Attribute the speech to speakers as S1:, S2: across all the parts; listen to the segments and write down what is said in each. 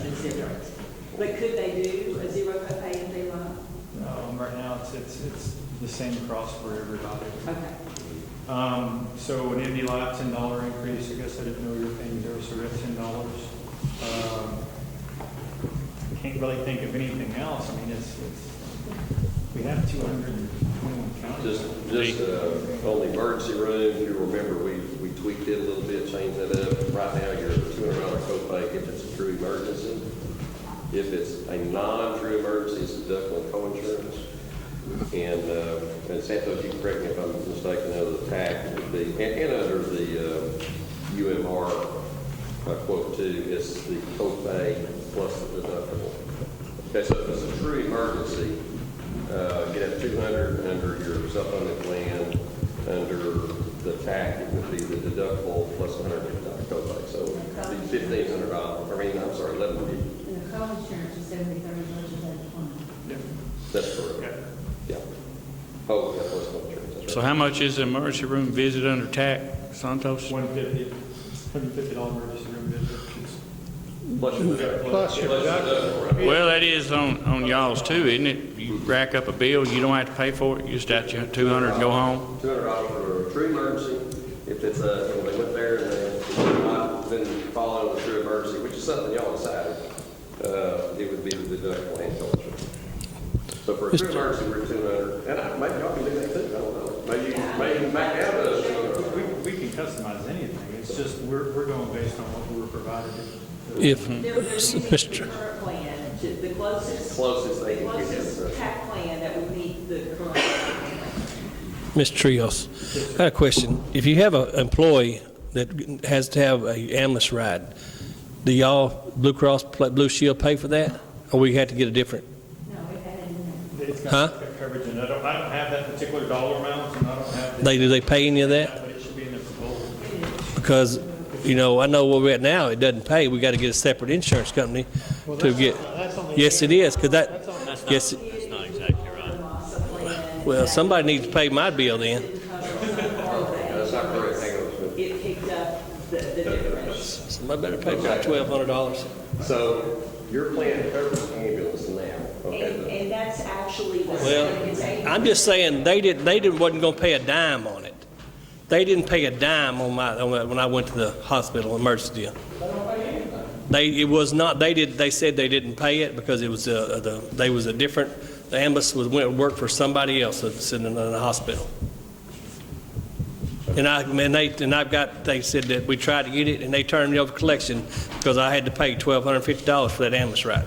S1: across, Um, it's, it's the same across for everybody.
S2: Okay.
S1: Um, so an Indy Light, ten dollar increase, I guess I didn't know you were paying zero, so that's ten dollars. Um, Can't really think of anything else, I mean, it's, it's, we have two hundred and twenty-one
S3: Just,
S1: counties.
S3: just uh, on the emergency room, if you remember, we, we tweaked it a little bit, changed that up. Right now, you're two hundred dollar copay if it's a true emergency. If it's a non-true emergency, it's deductible and co-insurance. And, uh, and Santos, you can correct me if I'm mistaken, under the TAC would be, and, and under the, uh, UMR uh, quote two is the copay plus the deductible. Okay, so if it's a true emergency, uh, get up two hundred under your supplemental plan, under the TAC, it would be the deductible plus hundred dollar copay. So it'd be fifteen hundred dollars, I mean, I'm sorry, eleven fifty.
S2: And the co-insurance is every thirty versus every twenty.
S1: Yeah.
S3: That's correct.
S1: Yeah.
S3: Yeah. Oh, yeah, plus co-insurance, that's
S4: So
S3: right.
S4: how much is the emergency room visit under TAC, Santos?
S1: One fifty, hundred fifty dollar emergency room visit.
S3: Plus your deductible.
S1: Plus your
S3: deductible. right?
S4: Well, that is on, on y'all's too, isn't it? You rack up a bill, you don't have to pay for it, you just at your 200 and go home?
S3: Two hundred dollars for a true emergency, if it's a, you know, they went there and they, not been following the true emergency, which is something y'all decided, uh, it would be the deductible and collection. So for a true emergency, we're two hundred, and I, maybe y'all can do that too, I don't know, maybe, maybe back out of the.
S1: We, we can customize anything, it's just, we're, we're going based on what we were provided.
S5: If,
S3: Mm-hmm.
S6: There was a
S5: Mr.
S6: current plan, to- the closest.
S3: Closest they
S6: the
S3: can get,
S6: Closest
S3: yes.
S6: PAC plan that would meet the current. plan.
S5: Mr. Trios, I got a question. If you have an employee that has to have a ambulance ride, do y'all, Blue Cross, Pla- Blue Shield pay for that? Or we had to get a different?
S6: No, we had it in
S1: It's
S5: Huh?
S1: got coverage, and I don't, I don't have that particular dollar amount, and I don't have. the-
S5: They, do they pay any of that?
S1: But it should be in the proposal.
S5: Because, you know, I know where we're at now, it doesn't pay. We got to get a separate insurance company to get. Yes, it is, because that, yes, it-
S6: That's not
S7: exactly right.
S6: the loss of plan.
S5: well, somebody needs to pay my bill then.
S6: Didn't cover some of
S3: That's not correct, hang on. a minute.
S6: that. It picked up the, the difference.
S5: Somebody better pay about $1,200.
S3: So your plan covers ambulance now, okay?
S6: And, and that's actually what's. it's
S5: Well,
S6: eight-
S5: I'm just saying, they didn't, they didn't, wasn't gonna pay a dime on it. They didn't pay a dime on my, on my- when I went to the hospital emergency deal. They, it was not, they did, they said they didn't pay it because it was, uh, the, they was a different, the ambulance was, went, worked for somebody else that's in the, in the hospital. And I, and they, and I've got, they said that we tried to get it and they turned me over collection because I had to pay twelve hundred and fifty dollars for that ambulance ride.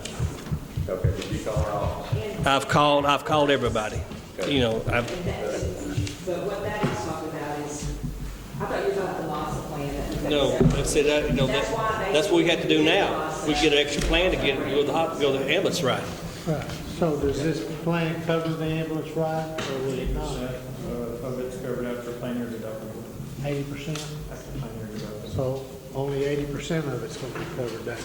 S3: Okay, did you call our office?
S5: I've called, I've called everybody, you know, I've,
S6: And that- But what that is talking about is, I thought you were talking about the loss of plan. that was
S5: No,
S6: separate.
S5: I said that, you know,
S6: That's why
S5: that,
S6: they-
S5: that's what we have to do now. We get an extra plan to get, go to the, hot- go to the ambulance ride.
S8: Right, so does this plan cover the ambulance ride, or will it
S1: Eighty
S8: not?
S1: percent uh, of it's covered after planar deductible,
S8: Eighty percent?
S1: after planar deductible.
S8: So only eighty percent of it's gonna be covered down.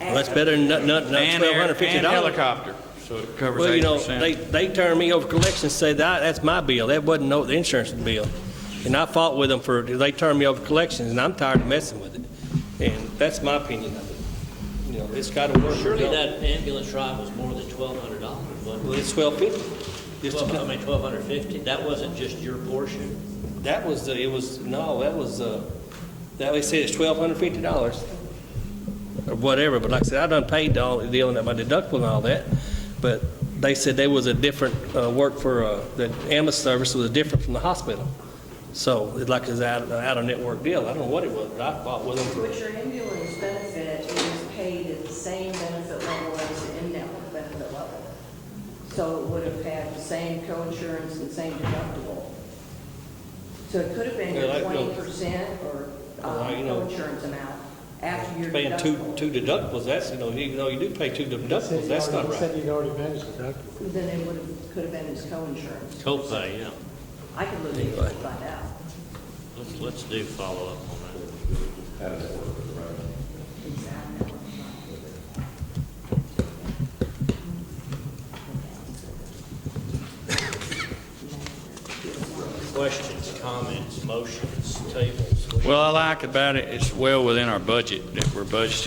S5: Well, that's better than not, not,
S4: And
S5: twelve
S4: air-
S5: hundred fifty
S4: And
S5: dollars.
S4: helicopter, so it covers
S5: Well, you know, they,
S4: 80%.
S5: they turned me over collections, said that, that's my bill, that wasn't no, the insurance bill. And I fought with them for, they turned me over collections, and I'm tired of messing with it. And that's my opinion of it. You know, it's gotta work.
S7: Surely that ambulance ride was more than twelve hundred dollars,
S5: Well,
S7: wasn't it?
S5: it's twelve fifty. Just to
S7: Twelve, I
S5: come-
S7: mean, twelve hundred fifty, that wasn't just your portion.
S5: That was, the- it was, no, that was, uh, that they said it's twelve hundred fifty dollars. Or whatever, but like I said, I done paid all, dealing with my deductible and all that, but they said they was a different, uh, work for, uh, the ambulance service was different from the hospital. So, it's like it's out, out of network deal, I don't know what it was, but I bought with them
S6: But
S5: for,
S6: your ambulance benefit is paid at the same benefit level as the in-network benefit level. So it would have had the same co-insurance and same deductible. So it could have been
S5: Yeah,
S6: your
S5: like, you know,
S6: twenty percent or
S5: well, you
S6: um,
S5: know,
S6: co-insurance amount after your
S5: paying two,
S6: deductible.
S5: two deductibles, that's, you know, even though you do pay two deductibles, Oh, that's not
S8: He said
S5: right.
S8: he'd already managed the deductible.
S6: Then it would have, could have been his co-insurance.
S7: Copay, yeah.
S6: I could look into it and find out.
S7: Let's, let's do follow-up on that. Questions, comments, motions, tables?
S4: Well, I like about it, it's well within our budget that we're budgeting